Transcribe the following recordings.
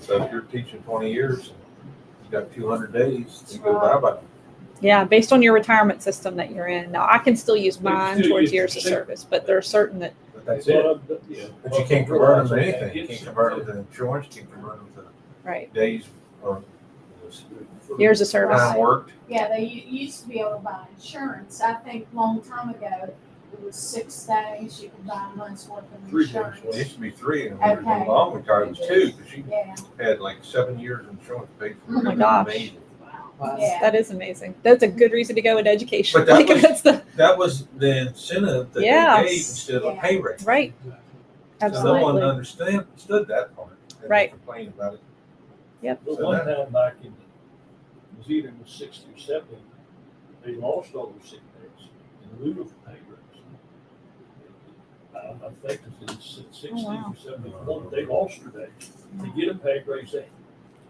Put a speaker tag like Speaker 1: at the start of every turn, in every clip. Speaker 1: So if you're teaching twenty years, you got two hundred days, you go bye bye.
Speaker 2: Yeah, based on your retirement system that you're in. Now, I can still use
Speaker 3: We
Speaker 2: mine
Speaker 3: still
Speaker 2: towards
Speaker 3: use
Speaker 2: years of
Speaker 3: the same.
Speaker 2: service, but there are certain that,
Speaker 1: But that's it. But you can't convert them to anything. You can't convert them to insurance, you can't convert them
Speaker 2: right,
Speaker 1: to days or
Speaker 2: years of service.
Speaker 1: time worked.
Speaker 4: Yeah, they u- used to be able to buy insurance. I think long time ago, it was six days, you could buy a month's worth of
Speaker 3: Three days,
Speaker 1: It
Speaker 4: insurance.
Speaker 1: used to be three and when we were long retired, it was two, because she
Speaker 4: Yeah,
Speaker 1: had like seven years insurance paid for.
Speaker 4: Oh my
Speaker 1: it. It was
Speaker 2: gosh.
Speaker 1: amazing.
Speaker 4: yeah.
Speaker 2: That is amazing. That's a good reason to go in education.
Speaker 1: But that
Speaker 2: Like,
Speaker 1: was-
Speaker 2: that's the,
Speaker 1: That was the incentive that
Speaker 2: Yes.
Speaker 1: they gave instead of a pay raise.
Speaker 2: right,
Speaker 1: No one
Speaker 2: absolutely.
Speaker 1: understand, understood that part. and they
Speaker 2: Right.
Speaker 1: Complained about it.
Speaker 3: But one time back in, it was either in the sixty or seventy, they lost all their sick days in lieu of pay raise. Um, I think it was in sixty
Speaker 2: wow.
Speaker 3: or seventy-one, they lost their days. To get a pay raise, they,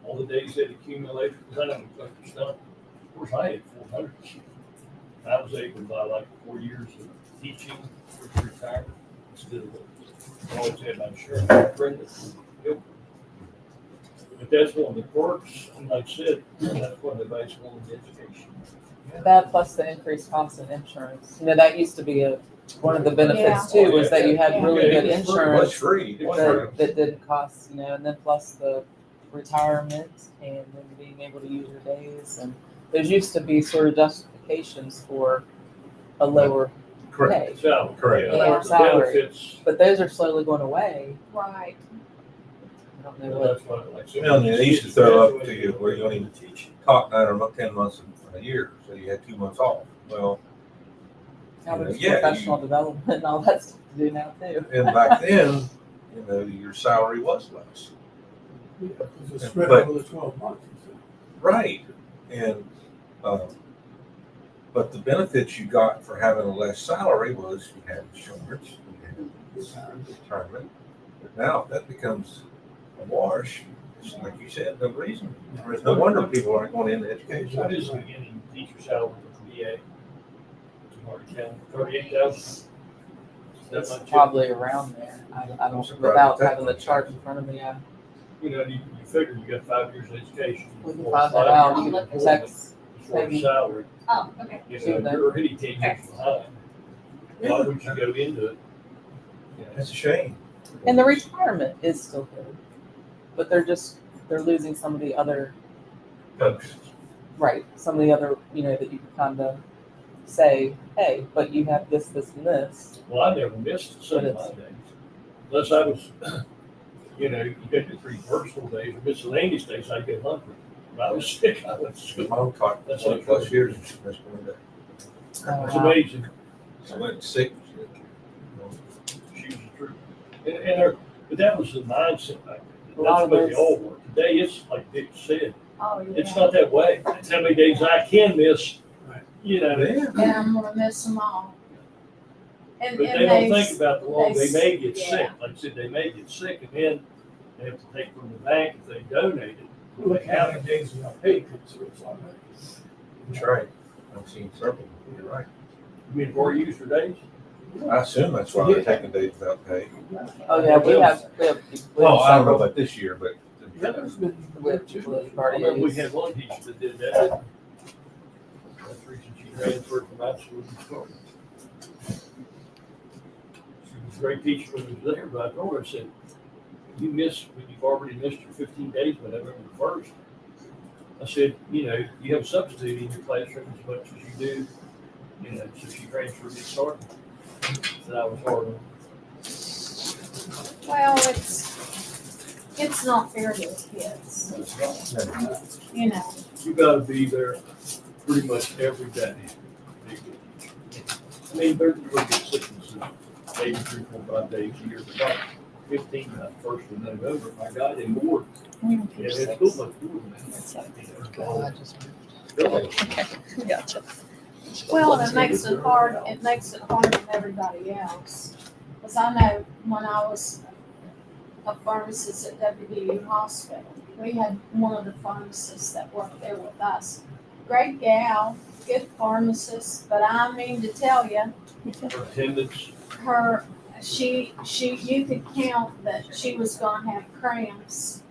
Speaker 3: all the days they'd accumulated, because I know collector stuff, of course, I had four hundred. I was able to buy like four years of teaching for retirement instead of, what- always had my insurance, Brenda, Hilton. But that's one of the perks, and like I said, that's one of the nice ones in education.
Speaker 5: That plus the increased cost of insurance. You know, that used to be a, one of the benefits
Speaker 3: Yeah.
Speaker 5: too, was that you had really
Speaker 3: Yeah.
Speaker 5: good
Speaker 3: Yeah.
Speaker 1: It was
Speaker 5: insurance
Speaker 1: free. It was free.
Speaker 5: that, that didn't cost, you know, and then plus the retirement and then being able to use your days and those used to be sort of justifications for a lower
Speaker 1: Correct.
Speaker 5: pay.
Speaker 3: So.
Speaker 1: Correct.
Speaker 5: Yeah.
Speaker 3: The benefits,
Speaker 5: But those are slowly going away.
Speaker 4: right.
Speaker 5: I don't know
Speaker 3: well,
Speaker 5: what,
Speaker 3: that's why, like. I said,
Speaker 1: Well, they used to throw up to you where you only teach, talk nine or mo- ten months a- a year, so you had two months off. Well,
Speaker 5: how much
Speaker 1: Yeah, you-
Speaker 5: professional development and all that stuff to do now too.
Speaker 1: and back then, you know, your salary was less.
Speaker 6: Yeah, because it's spread
Speaker 1: But-
Speaker 6: over the twelve months. you
Speaker 1: Right. And, um, but the benefits you got for having a less salary was you had insurance, you had retirement. But now that becomes a wash. It's like you said, no reason. There's no wonder people aren't going into education.
Speaker 3: I just beginning teacher salary for VA. Tomorrow county, thirty-eight thousand. That's
Speaker 5: It's
Speaker 3: not cheap.
Speaker 5: probably around there. I, I
Speaker 1: I'm
Speaker 5: don't,
Speaker 1: surprised
Speaker 5: without
Speaker 1: that-
Speaker 5: having the chart in front of me, I
Speaker 3: You know, you, you figure you got five years of education.
Speaker 5: We can
Speaker 3: or
Speaker 5: find
Speaker 3: five
Speaker 5: that out,
Speaker 3: years
Speaker 5: you
Speaker 3: of
Speaker 5: can text,
Speaker 3: employment for a
Speaker 5: maybe.
Speaker 3: Salary,
Speaker 4: Oh, okay.
Speaker 3: you
Speaker 5: Do
Speaker 3: know,
Speaker 5: that.
Speaker 3: you're already ten years behind. Why would you go into it? You know,
Speaker 1: That's a shame.
Speaker 5: and the retirement is still good. But they're just, they're losing some of the other,
Speaker 1: Folks,
Speaker 5: right, some of the other, you know, that you can kind of say, hey, but you have this, this, and this.
Speaker 3: Well, I never missed some of my days, unless I was, you know, you get your three personal days, or miscellaneous days, I get hungry. When I was sick, I went to
Speaker 1: My
Speaker 3: school.
Speaker 1: mom taught
Speaker 3: That's
Speaker 1: twenty
Speaker 3: like-
Speaker 1: plus years. and she was going to-
Speaker 3: It's
Speaker 5: Uh,
Speaker 3: amazing,
Speaker 1: I went sick.
Speaker 3: she was true. And, and, her- but that was the mindset back then,
Speaker 5: A lot
Speaker 3: that's what
Speaker 5: of
Speaker 3: they
Speaker 5: those-
Speaker 3: all were. Today, it's like Dick said,
Speaker 4: Oh,
Speaker 3: it's
Speaker 4: yeah.
Speaker 3: not that way, it's how many days I can miss,
Speaker 6: Right.
Speaker 3: you know,
Speaker 1: Yeah.
Speaker 4: And I'm gonna miss them all.
Speaker 3: but
Speaker 4: And,
Speaker 3: they
Speaker 4: and
Speaker 3: don't
Speaker 4: they,
Speaker 3: think
Speaker 4: s-
Speaker 3: about the law,
Speaker 4: they
Speaker 3: they may get
Speaker 4: s-
Speaker 3: sick, like I said, they may get sick, and then they have to take from the bank if they donate it.
Speaker 6: know. Look how many days we got paid, so it's all
Speaker 1: That's right. I've seen several. You're right.
Speaker 3: I mean, four user days?
Speaker 1: I assume that's why they're taking days without pay.
Speaker 5: Oh, yeah, we have, we have. we have
Speaker 1: Well, Oh, I don't know
Speaker 5: several
Speaker 1: about this year, but
Speaker 6: Yeah, there's been.
Speaker 5: With, with
Speaker 3: I remember we
Speaker 5: parties.
Speaker 3: had one teacher that did that. That's the reason she transferred from high school to Florida. She was a great teacher when she was there, but I told her, I said, you miss, when you've already missed your fifteen days by November the first. I said, you know, you have a substitute in your classroom as much as you do, you know, so she transferred to Florida. Said I was hard on her.
Speaker 4: well, it's, it's not fair to the kids,
Speaker 3: That's right.
Speaker 4: you know.
Speaker 3: you gotta be there pretty much every day. I mean, there's really good sicknesses, maybe three, four, five days a year, but not fifteen, uh, first of November, my God, and more.
Speaker 2: Mm.
Speaker 3: Yeah, it's cool, but more than that. You know,
Speaker 5: I just moved.
Speaker 3: really.
Speaker 2: Okay, gotcha.
Speaker 4: Well, it makes it hard, it makes it hard on everybody else. Cause I know when I was a pharmacist at WVU Hospital, we had one of the pharmacists that worked there with us. Great gal, good pharmacist, but I mean to tell you,
Speaker 3: Her attendance,
Speaker 4: her, she, she, you could count that she was gonna have cramps